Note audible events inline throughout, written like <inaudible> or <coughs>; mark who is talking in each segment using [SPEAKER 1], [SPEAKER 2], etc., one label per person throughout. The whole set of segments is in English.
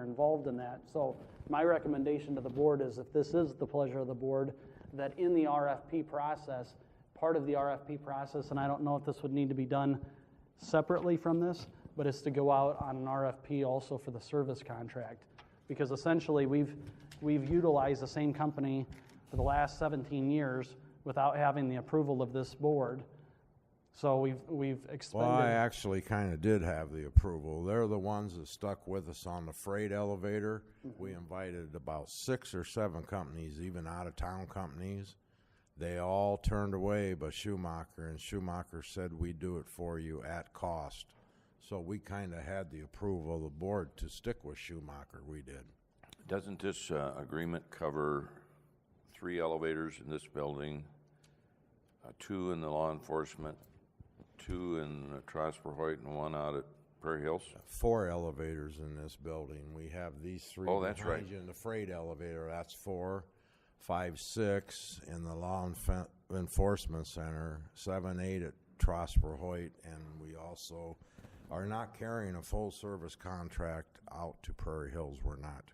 [SPEAKER 1] involved in that. So my recommendation to the board is if this is the pleasure of the board, that in the RFP process, part of the RFP process, and I don't know if this would need to be done separately from this, but is to go out on an RFP also for the service contract. Because essentially, we've, we've utilized the same company for the last 17 years without having the approval of this board. So we've, we've
[SPEAKER 2] Well, I
[SPEAKER 1] expended,
[SPEAKER 2] actually kind of did have the approval. They're the ones that stuck with us on the freight elevator. We invited about six or seven companies, even out of town companies. They all turned away but Schumacher, and Schumacher said, We do it for you at cost. So we kind of had the approval of the board to stick with Schumacher. We did.
[SPEAKER 3] Doesn't this uh, agreement cover three elevators in this building, uh, two in the law enforcement, two in uh, Prosper Hoyt, and one out at Prairie Hills?
[SPEAKER 2] Four elevators in this building. We have these three.
[SPEAKER 3] Oh, that's
[SPEAKER 2] behind
[SPEAKER 3] right.
[SPEAKER 2] you in the freight elevator, that's four, five, six in the law enf- enforcement center, seven, eight at Trosper Hoyt, and we also are not carrying a full service contract out to Prairie Hills. We're not.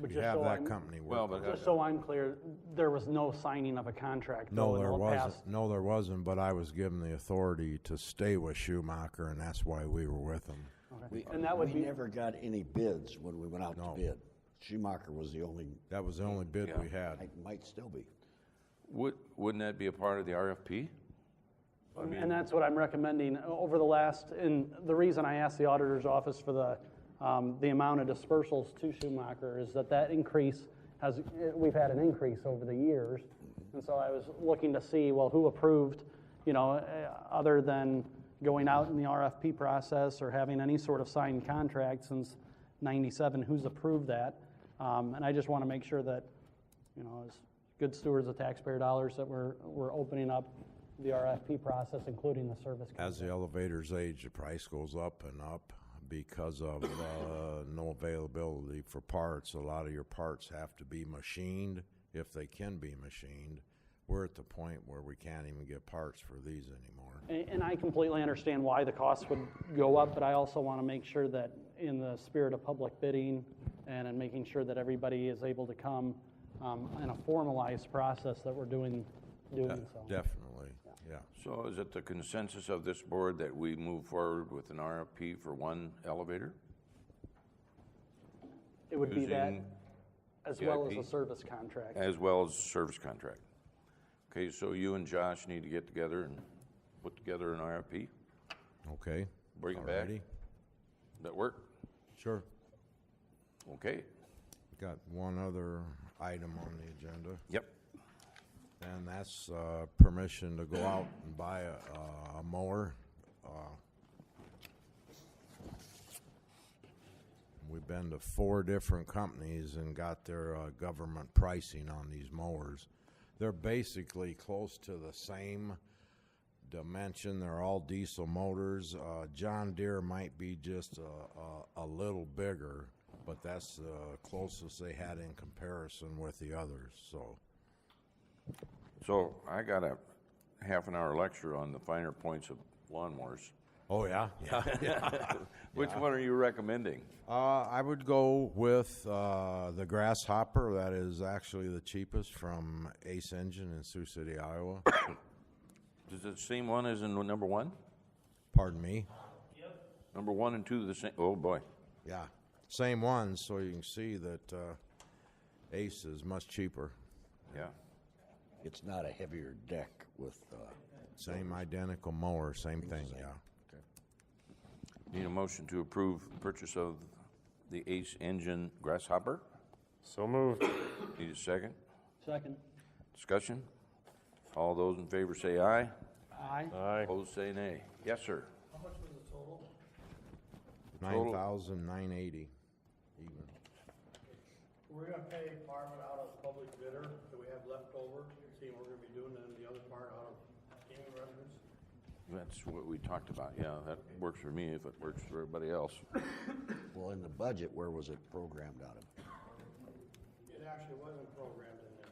[SPEAKER 1] but
[SPEAKER 2] We
[SPEAKER 1] just
[SPEAKER 2] have
[SPEAKER 1] so
[SPEAKER 2] that
[SPEAKER 1] I'm,
[SPEAKER 2] company
[SPEAKER 3] Well,
[SPEAKER 2] working.
[SPEAKER 3] but
[SPEAKER 1] just
[SPEAKER 3] uh,
[SPEAKER 1] so I'm clear, there was no signing of a contract. though,
[SPEAKER 2] No,
[SPEAKER 1] in
[SPEAKER 2] there
[SPEAKER 1] the
[SPEAKER 2] wasn't.
[SPEAKER 1] past-
[SPEAKER 2] No, there wasn't, but I was given the authority to stay with Schumacher, and that's why we were with him.
[SPEAKER 4] We,
[SPEAKER 1] And that would
[SPEAKER 4] we
[SPEAKER 1] be-
[SPEAKER 4] never got any bids when we went out
[SPEAKER 2] No.
[SPEAKER 4] to bid. Schumacher was the only,
[SPEAKER 2] That was the only bid we had.
[SPEAKER 4] might, might still be.
[SPEAKER 3] would, wouldn't that be a part of the RFP?
[SPEAKER 1] And that's what I'm recommending over the last, and the reason I asked the auditor's office for the, um, the amount of dispersals to Schumacher is that that increase has, we've had an increase over the years. And so I was looking to see, well, who approved, you know, eh, other than going out in the RFP process or having any sort of signed contract since ninety-seven, who's approved that? Um, and I just want to make sure that, you know, as good stewards of taxpayer dollars, that we're, we're opening up the RFP process, including the service. contract.
[SPEAKER 2] As the elevators age, the price goes up and up because of uh, no availability for parts. A lot of your parts have to be machined if they can be machined. We're at the point where we can't even get parts for these anymore.
[SPEAKER 1] And and I completely understand why the costs would go up, but I also want to make sure that in the spirit of public bidding and in making sure that everybody is able to come um, in a formalized process that we're doing, doing so.
[SPEAKER 2] Definitely, yeah.
[SPEAKER 3] So is it the consensus of this board that we move forward with an RFP for one elevator?
[SPEAKER 1] It would be that,
[SPEAKER 3] Using
[SPEAKER 1] as well as
[SPEAKER 3] EIP?
[SPEAKER 1] a service contract.
[SPEAKER 3] As well as service contract. Okay, so you and Josh need to get together and put together an RFP?
[SPEAKER 2] Okay.
[SPEAKER 3] Bring it back.
[SPEAKER 2] Alrighty.
[SPEAKER 3] That work?
[SPEAKER 2] Sure.
[SPEAKER 3] Okay,
[SPEAKER 2] Got one other item on the agenda.
[SPEAKER 3] yep.
[SPEAKER 2] And that's uh, permission to go out and buy a- a mower. Uh, We've been to four different companies and got their uh, government pricing on these mowers. They're basically close to the same dimension. They're all diesel motors. Uh, John Deere might be just a, a, a little bigger, but that's the closest they had in comparison with the others, so.
[SPEAKER 3] So I got a half an hour lecture on the finer points of lawnmowers.
[SPEAKER 2] Oh, yeah? Yeah.
[SPEAKER 3] Which one are you recommending?
[SPEAKER 2] Uh, I would go with uh, the Grasshopper. That is actually the cheapest from Ace Engine in Sioux City, Iowa. <coughs>
[SPEAKER 3] Is it the same one as in number one?
[SPEAKER 2] Pardon me.
[SPEAKER 3] Number one and two the same, oh boy.
[SPEAKER 2] Yeah, same one. So you can see that uh, Ace is much cheaper.
[SPEAKER 3] Yeah,
[SPEAKER 4] It's not a heavier deck with, uh,
[SPEAKER 2] Same identical mower, same thing. Yeah.
[SPEAKER 3] need a motion to approve purchase of the Ace Engine Grasshopper?
[SPEAKER 5] So moved.
[SPEAKER 3] Need a second?
[SPEAKER 1] Second.
[SPEAKER 3] Discussion? All those in favor say aye.
[SPEAKER 1] Aye.
[SPEAKER 5] Aye.
[SPEAKER 3] Opposed say nay. Yes, sir.
[SPEAKER 2] Nine thousand nine eighty. Even.
[SPEAKER 6] We're gonna pay part of it out of public bidder that we have left over, seeing we're gonna be doing, and the other part out of gaming revenues.
[SPEAKER 3] That's what we talked about, yeah, that works for me if it works for everybody else.
[SPEAKER 4] well, in the budget, where was it programmed out of?
[SPEAKER 6] It actually wasn't programmed in there.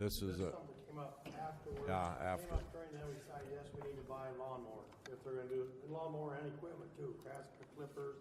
[SPEAKER 2] This is a
[SPEAKER 6] Something came up afterwards.
[SPEAKER 2] Yeah, after.
[SPEAKER 6] Came up during that, we decided, yes, we need to buy a lawnmower, if they're gonna do, lawnmower and equipment too, grass clippers,